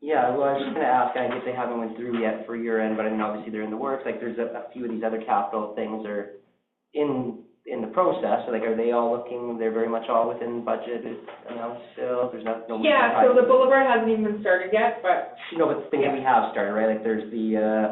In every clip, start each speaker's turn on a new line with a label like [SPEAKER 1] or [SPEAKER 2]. [SPEAKER 1] Yeah, well, I was just gonna ask, I guess they haven't went through yet for year end, but I mean, obviously they're in the works, like, there's a, a few of these other capital things are in, in the process, so like, are they all looking, they're very much all within budget, announced still, there's not, no.
[SPEAKER 2] Yeah, so the boulevard hasn't even been started yet, but
[SPEAKER 1] No, but things that we have started, right, like, there's the, uh,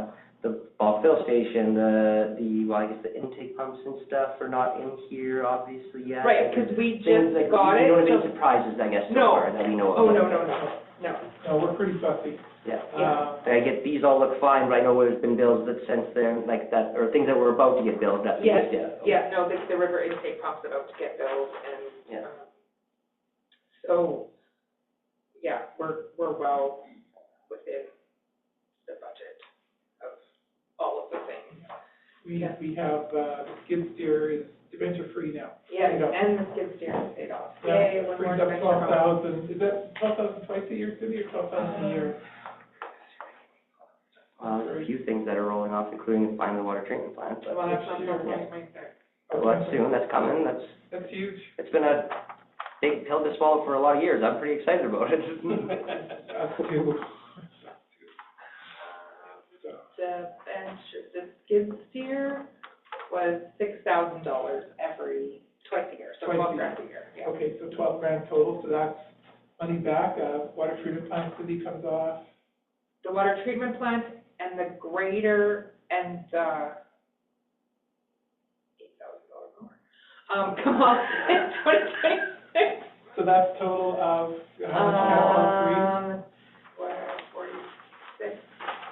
[SPEAKER 1] the ball fill station, the, the, well, I guess the intake pumps and stuff are not in here, obviously, yet.
[SPEAKER 2] Right, because we
[SPEAKER 1] Things
[SPEAKER 2] just
[SPEAKER 1] like,
[SPEAKER 2] got
[SPEAKER 1] you
[SPEAKER 2] it,
[SPEAKER 1] know what I mean,
[SPEAKER 2] so-
[SPEAKER 1] surprises, I guess, so
[SPEAKER 2] No.
[SPEAKER 1] far, that we know of.
[SPEAKER 2] oh, no, no, no, no.
[SPEAKER 3] No, we're pretty fussy.
[SPEAKER 1] Yeah.
[SPEAKER 3] Uh,
[SPEAKER 1] I get, these all look fine, but I know there's been bills that since then, like that, or things that were about to get billed that we
[SPEAKER 2] Yes,
[SPEAKER 1] just did.
[SPEAKER 2] Yeah, no, the, the river intake pump's about to get built and,
[SPEAKER 1] Yeah.
[SPEAKER 2] um, so, yeah, we're, we're well within the budget of all of the things.
[SPEAKER 3] we,
[SPEAKER 2] Yeah.
[SPEAKER 3] we have, uh, skid steer is dementia free now.
[SPEAKER 2] Yeah,
[SPEAKER 3] Paid off.
[SPEAKER 2] and the skid steer is paid off.
[SPEAKER 3] That
[SPEAKER 2] Yay, one more
[SPEAKER 3] Brings up
[SPEAKER 2] dimension
[SPEAKER 3] twelve
[SPEAKER 2] off.
[SPEAKER 3] thousand, is that twelve thousand twice a year, Cindy, or twelve
[SPEAKER 2] Uh-huh.
[SPEAKER 3] thousand a year?
[SPEAKER 1] Uh, there's a few things that are rolling off, including the final water treatment plant, but,
[SPEAKER 2] Well, that's not
[SPEAKER 3] Next
[SPEAKER 2] till
[SPEAKER 3] year.
[SPEAKER 2] twenty twenty-six.
[SPEAKER 1] well, that's soon, that's coming, that's,
[SPEAKER 3] That's huge.
[SPEAKER 1] it's been a big pill to swallow for a lot of years, I'm pretty excited about it.
[SPEAKER 3] Us too.
[SPEAKER 2] The bench, the skid steer was six thousand dollars every, twice a year, so
[SPEAKER 3] Twice a
[SPEAKER 2] twelve
[SPEAKER 3] year.
[SPEAKER 2] grand a year, yeah.
[SPEAKER 3] Okay, so twelve grand total, so that's money back, uh, water treatment plant, Cindy comes off,
[SPEAKER 2] the water treatment plant and the grader and the eight thousand dollar mower, um, come on, in twenty twenty-six.
[SPEAKER 3] so that's total of, uh, how much now on
[SPEAKER 2] Um, what, forty-six,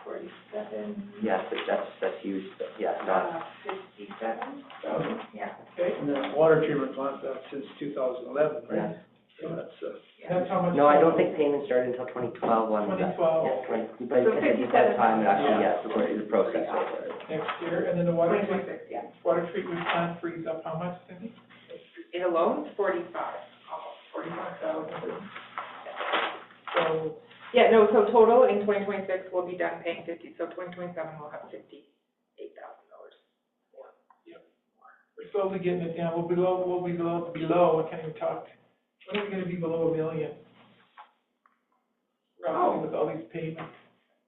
[SPEAKER 2] forty-seven,
[SPEAKER 1] Yes, but that's, that's huge, but yeah, not,
[SPEAKER 2] uh, fifty-seven,
[SPEAKER 3] three?
[SPEAKER 2] yeah,
[SPEAKER 3] Okay,
[SPEAKER 4] And then water treatment plant, that's since two thousand eleven,
[SPEAKER 1] yeah.
[SPEAKER 4] right? So that's, uh,
[SPEAKER 2] yeah.
[SPEAKER 3] that's how much.
[SPEAKER 1] No, I don't think payments started until twenty twelve on that.
[SPEAKER 3] 2012.
[SPEAKER 1] Yeah, twenty, but
[SPEAKER 2] Oh. So
[SPEAKER 1] because
[SPEAKER 2] 57.
[SPEAKER 1] it's that time, it actually,
[SPEAKER 3] Yeah.
[SPEAKER 1] yeah, it's going through the process. right?
[SPEAKER 3] Next year, and then the water,
[SPEAKER 2] Twenty
[SPEAKER 3] treat-
[SPEAKER 2] twenty-six, yeah.
[SPEAKER 3] water treatment plant frees up how much, Cindy?
[SPEAKER 2] It alone, forty-five, almost forty-five thousand.
[SPEAKER 3] So
[SPEAKER 2] Yeah, no, so total in twenty twenty-six, we'll be done paying fifty, so twenty twenty-seven, we'll have fifty-eight thousand dollars.
[SPEAKER 3] We're slowly getting it down, we'll be below, we'll be below, below, I can't even talk, when are we gonna be below a million?
[SPEAKER 2] Oh.
[SPEAKER 3] Roughly with all these payments,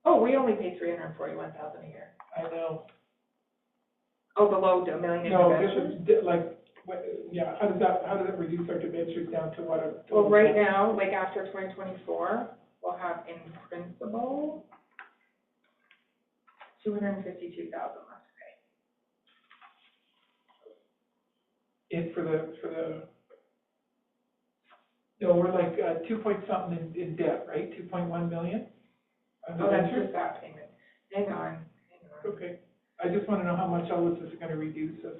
[SPEAKER 2] Oh, we only pay three hundred and forty-one thousand a year.
[SPEAKER 3] I know,
[SPEAKER 2] Oh, below a million
[SPEAKER 3] no, this
[SPEAKER 2] interventions?
[SPEAKER 3] is, di- like, what, yeah, how does that, how does it reduce our debentures down to what? a-
[SPEAKER 2] Well, right now, like after twenty twenty-four, we'll have in principle two hundred and fifty-two thousand left to pay.
[SPEAKER 3] In for the, for the, no, we're like, uh, two point something in, in debt, right, two point one million? On
[SPEAKER 2] Oh, that's just
[SPEAKER 3] debentures?
[SPEAKER 2] that payment. Hang on, hang on.
[SPEAKER 3] Okay, I just wanna know how much all this is gonna reduce us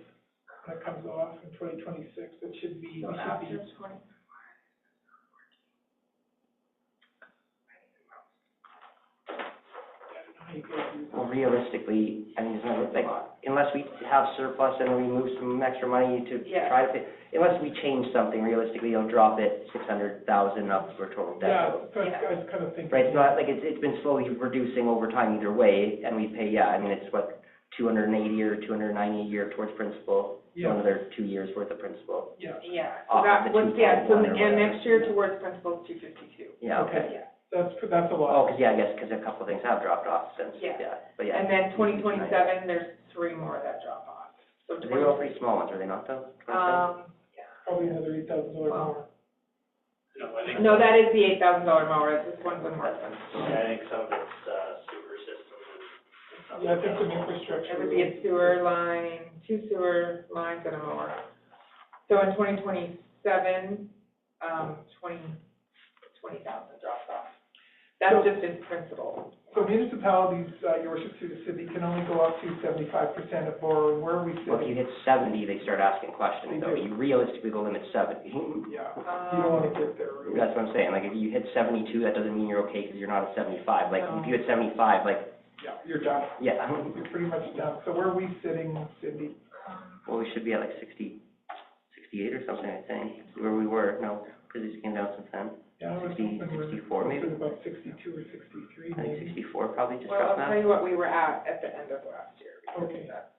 [SPEAKER 3] when it comes off in twenty twenty-six, it should be, we
[SPEAKER 2] So
[SPEAKER 3] should
[SPEAKER 2] after
[SPEAKER 3] be.
[SPEAKER 2] twenty.
[SPEAKER 3] I don't know how you guys do
[SPEAKER 1] Well, realistically, I mean, it's not, like, unless we have surplus and we move some extra money to
[SPEAKER 2] Yeah.
[SPEAKER 1] try to, fit- unless we change something realistically, it'll drop it six hundred thousand up for total
[SPEAKER 3] Yeah,
[SPEAKER 1] debt.
[SPEAKER 3] so I I was kind of thinking.
[SPEAKER 1] Right, it's not, like, it's, it's been slowly reducing over time either way, and we pay, yeah, I mean, it's what, two hundred and eighty or two hundred and ninety a year towards principal, so
[SPEAKER 3] Yeah,
[SPEAKER 1] another two years worth of principal,
[SPEAKER 3] yeah,
[SPEAKER 2] Yeah, so
[SPEAKER 1] Off
[SPEAKER 2] that
[SPEAKER 1] of the
[SPEAKER 2] was, yeah, so,
[SPEAKER 1] 2.1 or
[SPEAKER 2] and next
[SPEAKER 1] whatever.
[SPEAKER 2] year towards principal two fifty-two.
[SPEAKER 1] yeah, okay.
[SPEAKER 3] Okay.
[SPEAKER 2] Yeah.
[SPEAKER 3] that's, that's a
[SPEAKER 1] Oh,
[SPEAKER 3] lot.
[SPEAKER 1] 'cause yeah, I guess, 'cause a couple of things have dropped off since,
[SPEAKER 2] Yeah.
[SPEAKER 1] yeah, but yeah.
[SPEAKER 2] And then twenty twenty-seven, there's three more that drop off. So
[SPEAKER 1] They
[SPEAKER 2] twenty,
[SPEAKER 1] were all pretty small ones, were they not, though? 27?
[SPEAKER 2] um,
[SPEAKER 1] Oh.
[SPEAKER 3] Probably another eight thousand dollars
[SPEAKER 2] Wow.
[SPEAKER 3] more.
[SPEAKER 2] yeah. No, that is the eight thousand dollar mower, this one's one more expensive.
[SPEAKER 5] Yeah, I think some of it's, uh, sewer system and some
[SPEAKER 3] Yeah, I think
[SPEAKER 5] of
[SPEAKER 3] some
[SPEAKER 2] It
[SPEAKER 3] infrastructure.
[SPEAKER 2] would be a sewer line, two sewer lines and a mower. So in twenty twenty-seven, um, twenty, twenty thousand drops off. That's
[SPEAKER 3] So-
[SPEAKER 2] just in principal.
[SPEAKER 3] So municipalities, uh, your worship through the city, can only go up to seventy-five percent of borrowing, where are we
[SPEAKER 1] Well, if you
[SPEAKER 3] sitting?
[SPEAKER 1] hit seventy, they start asking
[SPEAKER 3] They
[SPEAKER 1] questions, though,
[SPEAKER 3] do.
[SPEAKER 1] you realistically go limit seventy.
[SPEAKER 3] Yeah, you don't wanna
[SPEAKER 2] Um,
[SPEAKER 3] get there, really.
[SPEAKER 1] That's what I'm saying, like, if you hit seventy-two, that doesn't mean you're okay, because you're not at seventy-five, like,
[SPEAKER 2] No.
[SPEAKER 1] if you hit seventy-five, like,
[SPEAKER 3] yeah, you're done,
[SPEAKER 1] yeah,
[SPEAKER 3] you're pretty much done. So where are we sitting, Cindy?
[SPEAKER 1] well, we should be at like sixty, sixty-eight or something, I think, where we were, no, because it's came down since then.
[SPEAKER 3] Yeah, I was
[SPEAKER 1] 60,
[SPEAKER 3] hoping we're
[SPEAKER 1] 64
[SPEAKER 3] closer
[SPEAKER 1] maybe.
[SPEAKER 3] to about sixty-two or sixty-three,
[SPEAKER 1] I think
[SPEAKER 3] maybe.
[SPEAKER 1] sixty-four probably just
[SPEAKER 2] well, I'll
[SPEAKER 1] dropped
[SPEAKER 2] tell
[SPEAKER 1] now.
[SPEAKER 2] you what we were at at the end of last year. because
[SPEAKER 3] Okay.
[SPEAKER 2] that's